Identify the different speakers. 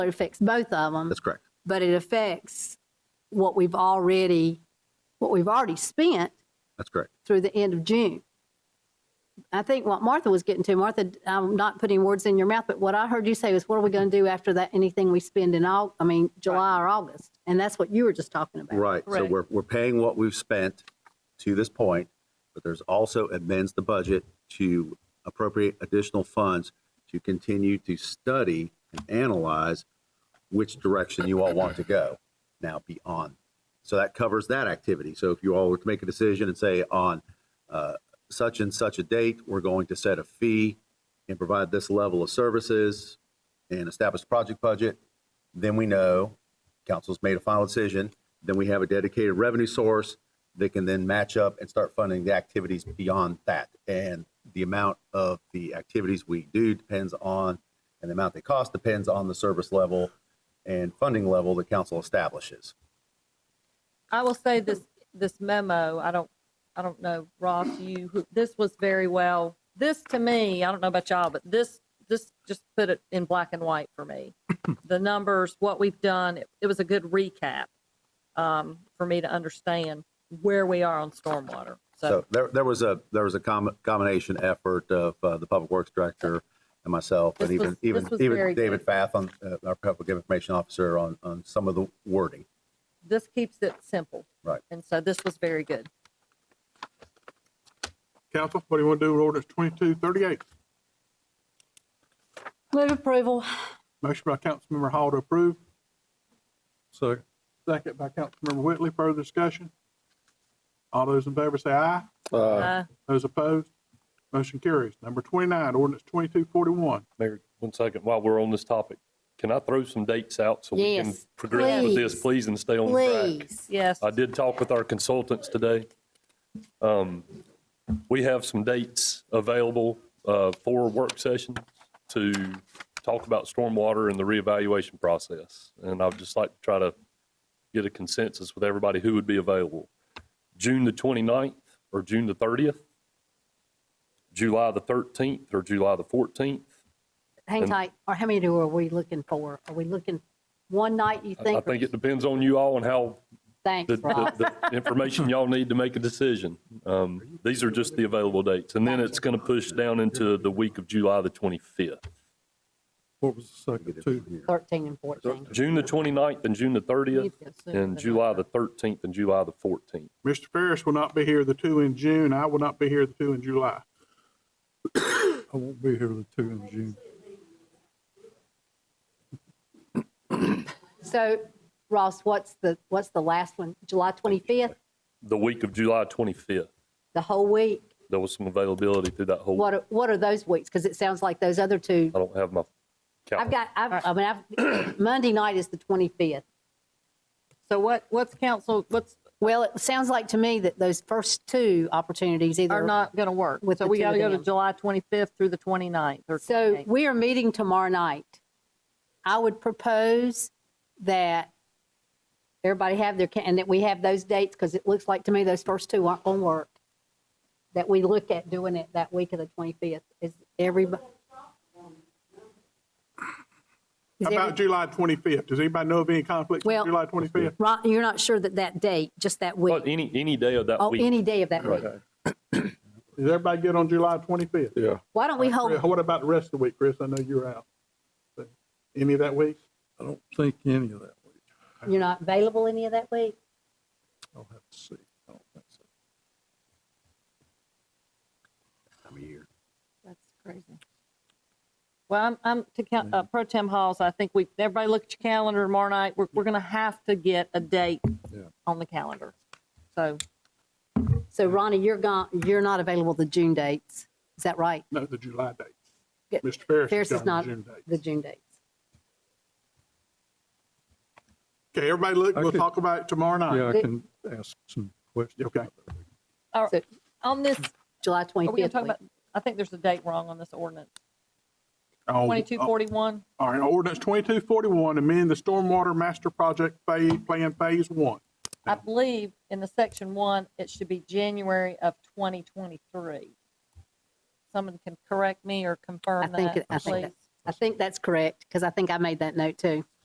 Speaker 1: It affects both of them,
Speaker 2: That's correct.
Speaker 1: but it affects what we've already, what we've already spent
Speaker 2: That's correct.
Speaker 1: through the end of June. I think what Martha was getting to, Martha, I'm not putting words in your mouth, but what I heard you say was, what are we going to do after that, anything we spend in Au, I mean, July or August? And that's what you were just talking about.
Speaker 2: Right. So
Speaker 3: Correct.
Speaker 2: we're, we're paying what we've spent to this point, but there's also amends the budget to appropriate additional funds to continue to study and analyze which direction you all want to go now beyond. So that covers that activity. So if you all were to make a decision and say on uh, such and such a date, we're going to set a fee and provide this level of services and establish a project budget, then we know council's made a final decision, then we have a dedicated revenue source that can then match up and start funding the activities beyond that. And the amount of the activities we do depends on, and the amount they cost depends on the service level and funding level the council establishes.
Speaker 3: I will say this, this memo, I don't, I don't know, Ross, you, who- this was very well, this to me, I don't know about y'all, but this, this just put it in black and white for me. The numbers, what we've done, it- it was a good recap um, for me to understand where we are on stormwater. So
Speaker 2: So there, there was a, there was a com- combination effort of uh, the Public Works Director and myself, and
Speaker 3: This
Speaker 2: even,
Speaker 3: was-
Speaker 2: even,
Speaker 3: this was
Speaker 2: even
Speaker 3: very good.
Speaker 2: David Fath on, uh, our Public Information Officer on, on some of the wording.
Speaker 3: this keeps it simple.
Speaker 2: Right.
Speaker 3: And so this was very good.
Speaker 4: Council, what do you want to do with ordinance twenty-two thirty-eight?
Speaker 1: Move approval.
Speaker 4: Motion by Councilmember Hall to approve. Second. Second by Councilmember Whitley. Further discussion? All those in favor say aye.
Speaker 3: Uh,
Speaker 4: Those opposed? Motion carries. Number twenty-nine, ordinance twenty-two forty-one.
Speaker 5: Mayor, one second, while we're on this topic, can I throw some dates out so we can
Speaker 1: Yes,
Speaker 5: progress with this,
Speaker 1: please.
Speaker 5: please, and stay on the track?
Speaker 1: Please.
Speaker 3: Yes.
Speaker 5: I did talk with our consultants today. Um, We have some dates available uh, for work sessions to talk about stormwater and the reevaluation process. And I'd just like to try to get a consensus with everybody who would be available. June the 29th or June the 30th, July the 13th or July the 14th,
Speaker 1: Hang
Speaker 5: And-
Speaker 1: tight. Or how many do are we looking for? Are we looking one night, you
Speaker 5: I
Speaker 1: think?
Speaker 5: think it depends on you all and how
Speaker 1: Thanks,
Speaker 5: the,
Speaker 1: Ross.
Speaker 5: the, the information y'all need to make a decision. Um, these are just the available dates. And then it's going to push down into the week of July the 25th.
Speaker 4: What was the second two?
Speaker 1: 13 and 14.
Speaker 5: June the 29th and June the 30th and July the 13th and July the 14th.
Speaker 4: Mr. Ferris will not be here the two in June. I will not be here the two in July.
Speaker 6: I won't be here the two in June.
Speaker 1: So Ross, what's the, what's the last one? July 25th,
Speaker 5: The week of July 25th,
Speaker 1: the whole week?
Speaker 5: there was some availability through that whole,
Speaker 1: What, are- what are those weeks? Because it sounds like those other two,
Speaker 5: I don't have my
Speaker 1: I've
Speaker 5: calendar.
Speaker 1: got, I've, I mean, I've, Monday night is the 25th.
Speaker 3: So what, what's council, what's,
Speaker 1: Well, it sounds like to me that those first two opportunities either.
Speaker 3: are not going to work.
Speaker 1: With
Speaker 3: So
Speaker 1: the
Speaker 3: we
Speaker 1: two
Speaker 3: got to
Speaker 1: of
Speaker 3: go to
Speaker 1: them.
Speaker 3: July 25th through the 29th or
Speaker 1: So
Speaker 3: 28th.
Speaker 1: we are meeting tomorrow night. I would propose that everybody have their, ca- and that we have those dates, because it looks like to me those first two aren't going to work. That we look at doing it that week of the 25th. Is everybody? Is
Speaker 4: How About
Speaker 1: every-
Speaker 4: July twenty-fifth. Does anybody know of any conflicts
Speaker 1: Well-
Speaker 4: with July twenty-fifth?
Speaker 1: Ron, you're not sure that that date, just that
Speaker 5: But
Speaker 1: week?
Speaker 5: any, any day of that
Speaker 1: Oh,
Speaker 5: week,
Speaker 1: any day of that week.
Speaker 4: Is everybody good on July twenty-fifth?
Speaker 6: Yeah.
Speaker 1: Why don't we hold,
Speaker 4: What about the rest of the week, Chris? I know you're out. But Any of that week?
Speaker 6: I don't think any of that week.
Speaker 1: you're not available any of that week?
Speaker 6: I'll have to see. I don't think so.
Speaker 2: Time of year.
Speaker 3: That's crazy. Well, I'm, I'm to count, uh, pro tem halls, I think we, everybody look at your calendar tomorrow night. We're, we're going to have to get a date
Speaker 6: Yeah.
Speaker 3: on the calendar. So
Speaker 1: So Ronnie, you're gone, you're not available the June dates. Is that right?
Speaker 4: No, the July date.
Speaker 1: Yeah,
Speaker 4: Mr. Ferris.
Speaker 1: Ferris is
Speaker 4: gone
Speaker 1: not-
Speaker 4: to June date.
Speaker 1: The June dates.
Speaker 4: Okay, everybody look, we'll
Speaker 6: Okay.
Speaker 4: talk about it tomorrow night.
Speaker 6: Yeah, I
Speaker 1: They-
Speaker 6: can ask some questions.
Speaker 4: Okay.
Speaker 6: about that.
Speaker 3: on this,
Speaker 1: July
Speaker 3: are we going to
Speaker 1: 25th
Speaker 3: talk
Speaker 1: week.
Speaker 3: about, I think there's a date wrong on this ordinance.
Speaker 4: Oh,
Speaker 3: 2241.
Speaker 4: All right, ordinance twenty-two forty-one, amend the stormwater master project phase, plan phase one.
Speaker 3: I believe in the section one, it should be January of 2023. Someone can correct me or
Speaker 1: I
Speaker 3: confirm
Speaker 1: think, it-
Speaker 3: that,
Speaker 1: I think
Speaker 3: please.
Speaker 1: that I think that's correct, because I think I made that note too.